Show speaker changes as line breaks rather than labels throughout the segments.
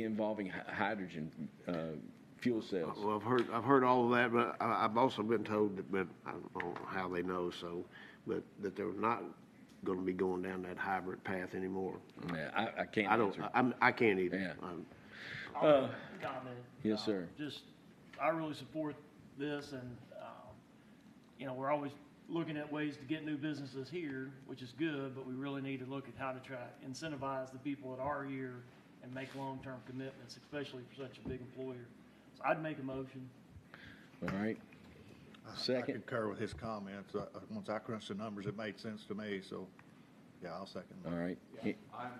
involving hy- hydrogen uh, fuel cells.
Uh, Well, I've heard, I've heard all of that, but I, I've also been told that, but I don't know how they know, so, but that they're not gonna be going down that hybrid path anymore.
Yeah, I, I can't
I don't,
answer.
I'm, I can't
Yeah.
either. Um, I'm-
I'll make a comment.
Uh, yes,
Uh,
sir.
Just, I really support this and, um, you know, we're always looking at ways to get new businesses here, which is good, but we really need to look at how to try to incentivize the people that are here and make long-term commitments, especially for such a big employer. So I'd make a motion.
All right.
I
Second.
concur with his comments. Uh, Once I crunched the numbers, it made sense to me, so, yeah, I'll second that.
All right.
Yeah, I'm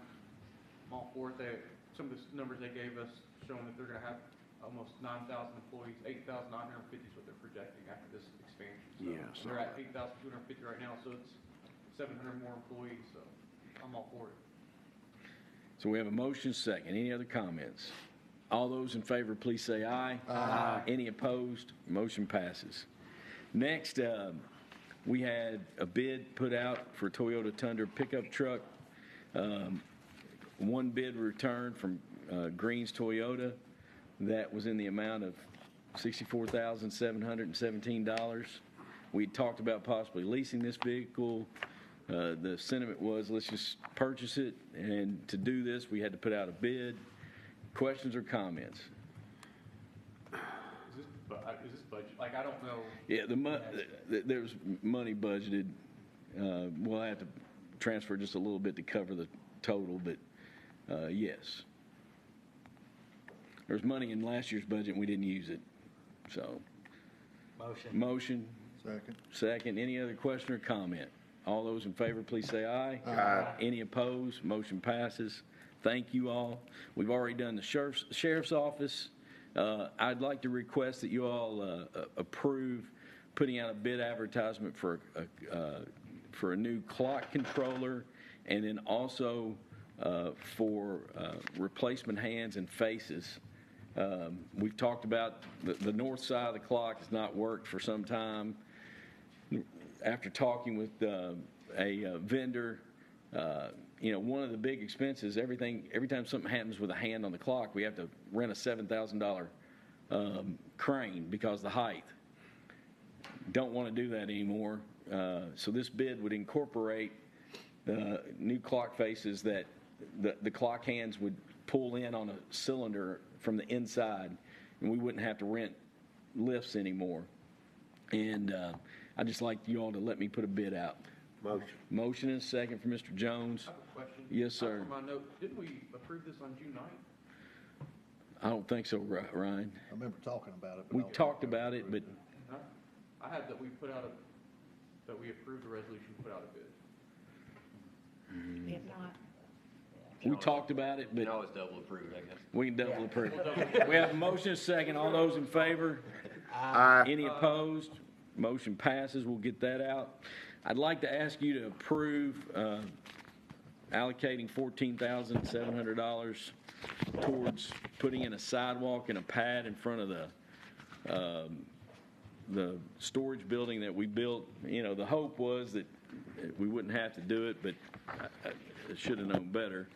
all for it. They, some of the s- numbers they gave us showing that they're gonna have almost nine thousand employees, eight thousand nine hundred and fifty is what they're projecting after this expansion. So,
Yeah,
and
so-
They're at eight thousand two hundred and fifty right now, so it's seven hundred more employees, so I'm all for it.
So we have a motion second. Any other comments? All those in favor, please say aye. Aye. Any opposed? Motion passes. Next, um, we had a bid put out for Toyota Tundra pickup truck. Um, One bid returned from uh, Green's Toyota that was in the amount of $64,717. We talked about possibly leasing this vehicle. Uh, The sentiment was, let's just purchase it, and to do this, we had to put out a bid. Questions or comments?
Is this, bu- uh, is this budget, like, I don't know,
Yeah, the mon, th- there was money budgeted. Uh, We'll have to transfer just a little bit to cover the total, but uh, yes. There was money in last year's budget, and we didn't use it, so. Motion. Motion,
Second.
second. Any other question or comment? All those in favor, please say aye. Aye. Any opposed? Motion passes. Thank you all. We've already done the sheriff's, sheriff's office. Uh, I'd like to request that you all uh, uh, approve putting out a bid advertisement for, a- uh, for a new clock controller and then also uh, for uh, replacement hands and faces. Um, We've talked about the, the north side of the clock has not worked for some time after talking with uh, a uh, vendor, uh, you know, one of the big expenses, everything, every time something happens with a hand on the clock, we have to rent a $7,000 um, crane because the height. Don't want to do that anymore. Uh, So this bid would incorporate uh, new clock faces that the, the clock hands would pull in on a cylinder from the inside, and we wouldn't have to rent lifts anymore. And uh, I'd just like you all to let me put a bid out.
Motion.
Motion and second for Mr. Jones.
I have a question.
Yes,
Uh,
sir.
For my note, didn't we approve this on June ninth?
I don't think so, Ri- Ryan.
I remember talking about it. but
We
I don't
talked
remember
about it, but
approving it.
Huh? I had that we put out a, that we approved the resolution, to put out a bid.
If not,
we talked about it,
You can
but
always double approve, I guess.
we can double approve. We have a motion and second. All those in favor? Any opposed? Motion passes. We'll get that out. I'd like to ask you to approve uh, allocating $14,700 towards putting in a sidewalk and a pad in front of the, um, the storage building that we built. You know, the hope was that we wouldn't have to do it, but I- I should have known better.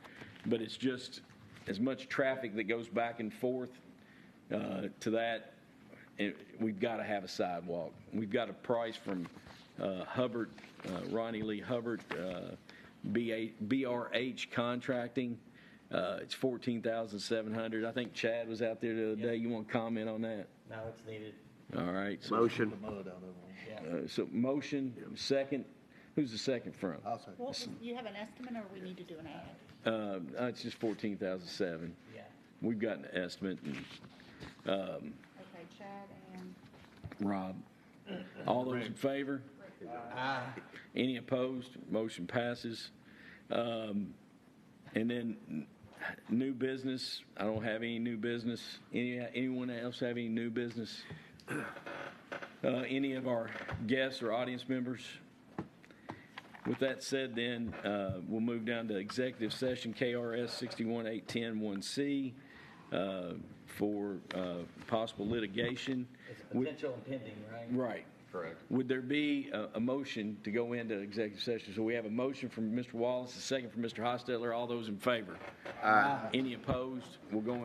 But it's just as much traffic that goes back and forth uh, to that, it- we've got to have a sidewalk. We've got a price from uh, Hubbard, uh, Ronnie Lee Hubbard, uh, BA BRH Contracting. Uh, It's 14700 I think Chad was out there the other day. You want to comment on that?
No, it's needed.
All right. so-
Motion.
The mud out of it.
uh, So motion, second, who's the second from?
I'll second.
well, you have an estimate or we need to do an ad?
Uh, It's just 14,007.
Yeah.
We've got an estimate, and
Okay, Chad and
Rob, all those in favor? Any opposed? Motion passes. Um, And then n- new business, I don't have any new business. Any Anyone else have any new business? Uh, Any of our guests or audience members? With that said, then, uh, we'll move down to executive session, KRS 618101C, uh, for uh, possible litigation.
It's
Would-
potential impending, right?
Right.
Correct.
Would there be a, a motion to go into executive session? So we have a motion from Mr. Wallace, a second from Mr. Hostetler. All those in favor? Any opposed? We'll go in.